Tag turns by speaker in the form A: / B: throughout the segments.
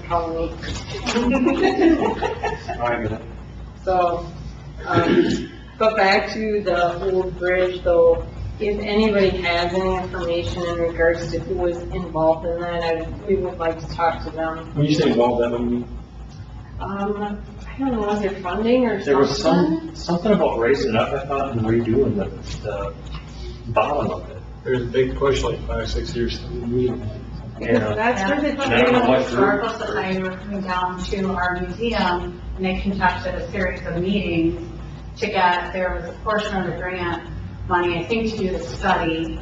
A: Halloween.
B: Alright,
A: So, um, but back to the old bridge though, if anybody has any information in regards to who was involved in that, I, we would like to talk to them.
B: when you say involved, that mean?
A: Um, I don't know, was there funding or something?
B: There was some, something about raising it up, I thought, and redoing the, the bottom of it.
C: There's a big push like five, six years.
B: Yeah,
A: That's where the
B: I don't know
A: trail,
B: what-
D: Historical Society were coming down to our museum, and they conducted a series of meetings to get, there was a portion of the grant money, I think, to do the study,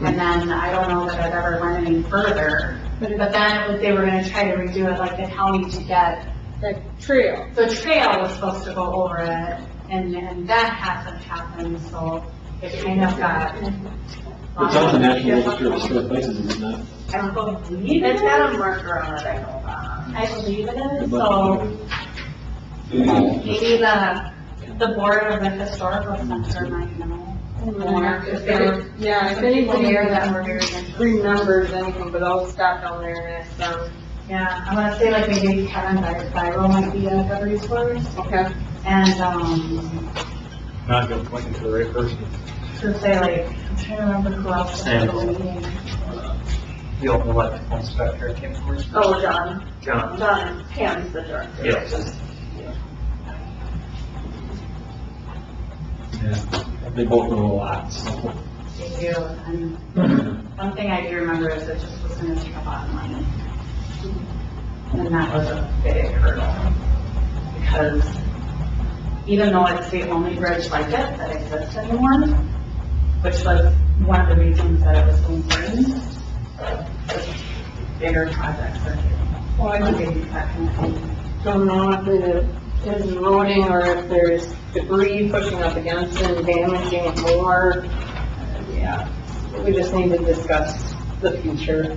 D: and then I don't know that it ever went any further, but but then it was- they were gonna try to redo it like the county to get,
A: the trail.
D: the trail was supposed to go over it, and, and that hasn't happened, so it kind of got.
B: it's on the National Register of Historic Places, is it not?
D: I believe it
E: It's
D: is.
E: got a marker on it, I know that.
D: I believe it is, so maybe the, the board of the historical center might know more. If there were
A: Yeah, if
D: some people
A: anybody
D: there that were very interested.
A: remembers anything, but I'll stop down there and ask them.
D: Yeah, I wanna say like maybe Kevin By- Byro might be a good resource,
A: Okay.
D: and, um,
C: Not gonna point you to the right person.
D: to say like, I'm trying to remember who else. was at the meeting.
B: The old electrical inspector, I can't remember.
E: Oh, John,
B: John.
E: John, Pam's the director.
B: Yes. Yeah, they both know a lot, so.
D: They do, and one thing I do remember is it just was gonna take a lot of money. And that was a big hurdle, because even though it's the only bridge like it that exists anymore, which was one of the reasons that it was so important, bigger projects are
A: Well, I
D: are getting that kind of thing.
A: don't know if it is eroding or if there's debris pushing up against it and damaging it more. Yeah, we just need to discuss the future.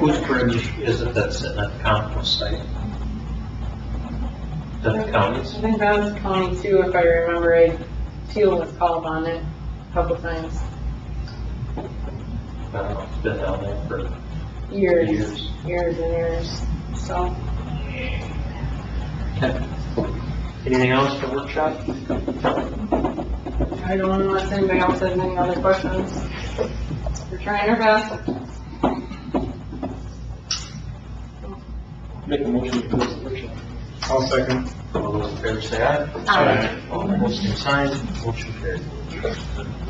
F: Whose bridge is it that's sitting at the compost site? The county's?
A: I think that was county too, if I remember right. Teal was called on it a couple times,
F: I don't know, it's been down there for,
A: years,
F: Years.
A: years and years, so.
F: anything else for workshop?
A: I don't know if anybody else has any other questions. We're trying our best.
B: Make a motion to close the workshop.
C: I'll second.
F: All those in favor say aye.
D: Aye.
F: All opposed, same sign, motion carried.